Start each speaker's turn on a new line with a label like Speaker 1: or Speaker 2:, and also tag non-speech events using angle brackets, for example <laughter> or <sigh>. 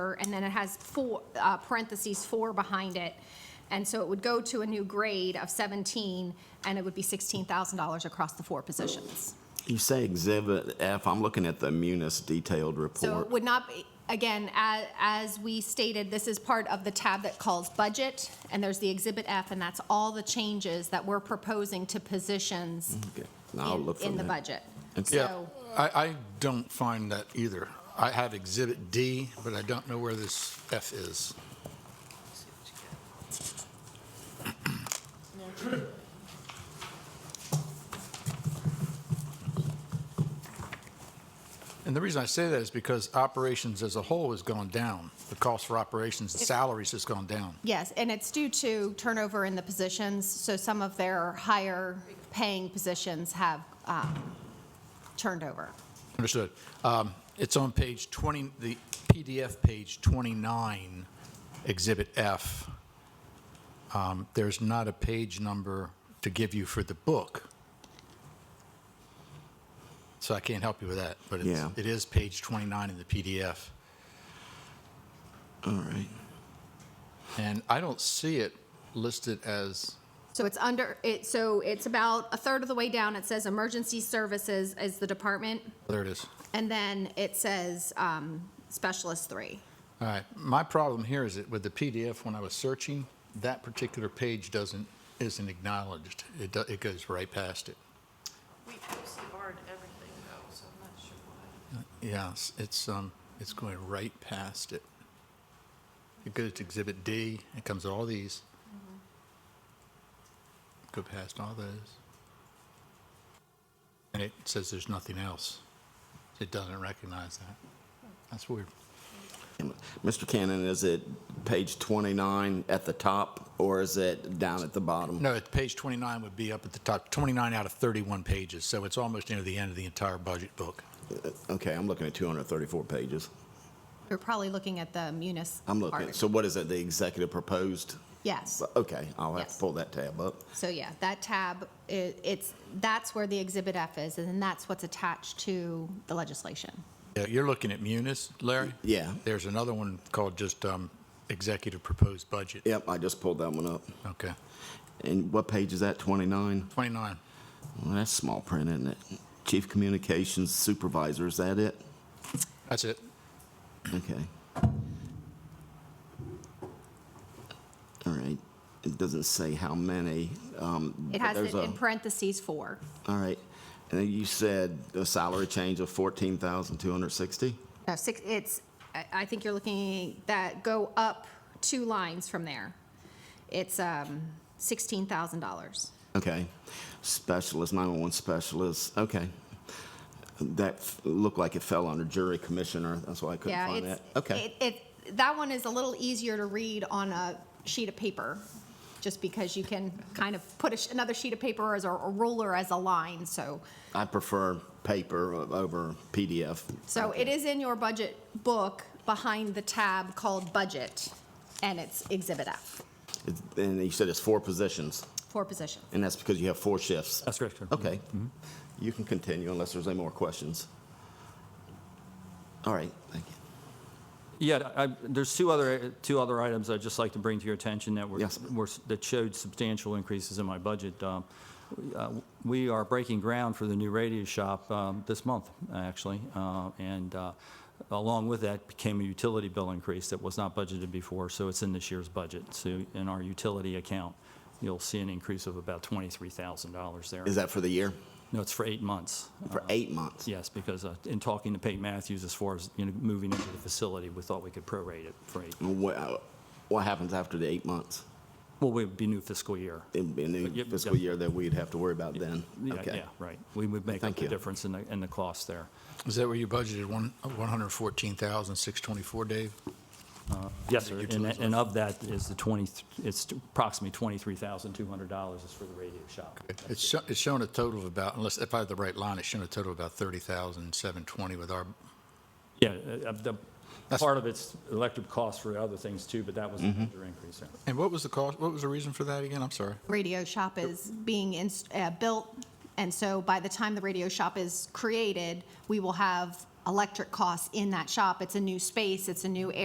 Speaker 1: and then it has four, uh, parentheses, four behind it. And so it would go to a new grade of 17, and it would be $16,000 across the four positions.
Speaker 2: You say Exhibit F, I'm looking at the Munis detailed
Speaker 1: So it
Speaker 2: report.
Speaker 1: would not, be again, as, as we stated, this is part of the tab that calls budget, and there's the Exhibit F, and that's all the changes that we're proposing to positions
Speaker 2: Okay, now Mm-hmm. I'll
Speaker 1: in,
Speaker 2: look for
Speaker 1: in the
Speaker 2: that.
Speaker 1: budget.
Speaker 2: Okay.
Speaker 3: Yeah,
Speaker 1: So,
Speaker 3: I, I don't find that either. I have Exhibit D, but I don't know where this F is. <clears throat> And the reason I say that is because operations as a whole has gone down. The cost for operations and salaries has gone down.
Speaker 1: yes, and it's due to turnover in the positions, so some of their higher-paying positions have um, turned over.
Speaker 3: Understood. Um, It's on page 20, the PDF page 29, Exhibit F. Um, There's not a page number to give you for the book. So I can't help you with that, but it's-
Speaker 2: Yeah.
Speaker 3: it is page 29 in the PDF.
Speaker 2: All right.
Speaker 3: And I don't see it listed as,
Speaker 1: So it's under, it, so it's about a third of the way down. It says emergency services is the department,
Speaker 3: there it is.
Speaker 1: and then it says um, specialist three.
Speaker 3: All right, my problem here is that with the PDF, when I was searching, that particular page doesn't, isn't acknowledged. It do- It goes right past it.
Speaker 4: We OCR'd everything though, so I'm not sure why.
Speaker 3: Yes, it's, um, it's going right past it. It goes to Exhibit D, it comes to all these. Go past all those. And it says there's nothing else. It doesn't recognize that. That's weird.
Speaker 2: Mr. Cannon, is it page 29 at the top, or is it down at the bottom?
Speaker 3: No, it- page 29 would be up at the top, 29 out of 31 pages, so it's almost near the end of the entire budget book.
Speaker 2: Okay, I'm looking at 234 pages.
Speaker 1: You're probably looking at the munis.
Speaker 2: I'm looking,
Speaker 1: part.
Speaker 2: so what is it, the executive proposed?
Speaker 1: Yes.
Speaker 2: Okay, I'll have to
Speaker 1: Yes.
Speaker 2: pull that tab up.
Speaker 1: So yeah, that tab, i- it's, that's where the Exhibit F is, and then that's what's attached to the legislation.
Speaker 3: Yeah, You're looking at Munis, Larry?
Speaker 2: Yeah.
Speaker 3: There's another one called just um, Executive Proposed Budget.
Speaker 2: Yep, I just pulled that one up.
Speaker 3: Okay.
Speaker 2: And what page is that, 29?
Speaker 3: 29.
Speaker 2: Well, that's small print, isn't it? Chief Communications Supervisor, is that it?
Speaker 3: That's it.
Speaker 2: Okay. All right. It doesn't say how many. um,
Speaker 1: It
Speaker 2: but
Speaker 1: has
Speaker 2: there's
Speaker 1: it in
Speaker 2: a-
Speaker 1: parentheses four.
Speaker 2: All right. And then you said a salary change of 14,260?
Speaker 1: No, six, it's, I, I think you're looking, that go up two lines from there. It's um, $16,000.
Speaker 2: Okay. Specialist, 911 specialist, okay. That f- looked like it fell under jury commissioner, that's why I couldn't
Speaker 1: Yeah,
Speaker 2: find
Speaker 1: it's,
Speaker 2: that. Okay,
Speaker 1: it, it, that one is a little easier to read on a sheet of paper, just because you can kind of put a sh- another sheet of paper as a a ruler as a line, so.
Speaker 2: I prefer paper o- over PDF.
Speaker 1: So it is in your budget book behind the tab called Budget, and it's Exhibit F,
Speaker 2: It's- And you said it's four positions,
Speaker 1: four positions.
Speaker 2: and that's because you have four shifts?
Speaker 5: That's correct, sir.
Speaker 2: Okay. You can continue unless there's any more questions. All right, thank you.
Speaker 5: Yeah, I- there's two other, two other items I'd just like to bring to your attention that were,
Speaker 2: Yes.
Speaker 5: were- that showed substantial increases in my budget. Um, we, uh, We are breaking ground for the new radio shop um, this month, actually, uh, and uh, along with that came a utility bill increase that was not budgeted before, so it's in this year's budget. So in our utility account, you'll see an increase of about $23,000 there.
Speaker 2: Is that for the year?
Speaker 5: No, it's for eight months.
Speaker 2: For eight months?
Speaker 5: Yes, because uh, in talking to Pete Matthews, as far as, you know, moving into the facility, we thought we could prorate it for eight.
Speaker 2: What, uh, what happens after the eight months?
Speaker 5: Well, we would be new fiscal year.
Speaker 2: It'd be a new
Speaker 5: Yep,
Speaker 2: fiscal
Speaker 5: yep.
Speaker 2: year that we'd have to worry about then?
Speaker 5: Yeah,
Speaker 2: Okay.
Speaker 5: Yeah, right. We would make up
Speaker 2: Thank
Speaker 5: the
Speaker 2: you.
Speaker 5: difference in the, in the cost there.
Speaker 3: Is that where you budgeted one, one hundred fourteen thousand, six twenty-four, Dave?
Speaker 5: Yes, sir. And,
Speaker 3: Utilities.
Speaker 5: and of that is the 20, it's approximately $23,200 is for the radio shop.
Speaker 3: It's, sho- it's showing a total of about, unless, if I have the right line, it's showing a total of about thirty thousand, seven twenty with our,
Speaker 5: Yeah, uh, uh, the,
Speaker 3: That's-
Speaker 5: part of it's electric costs for other things too, but that was a
Speaker 2: Mm-hmm.
Speaker 5: major increase there.
Speaker 3: and what was the cost, what was the reason for that again? I'm sorry.
Speaker 1: Radio shop is being ins- uh, built, and so by the time the radio shop is created, we will have electric costs in that shop. It's a new space, it's a new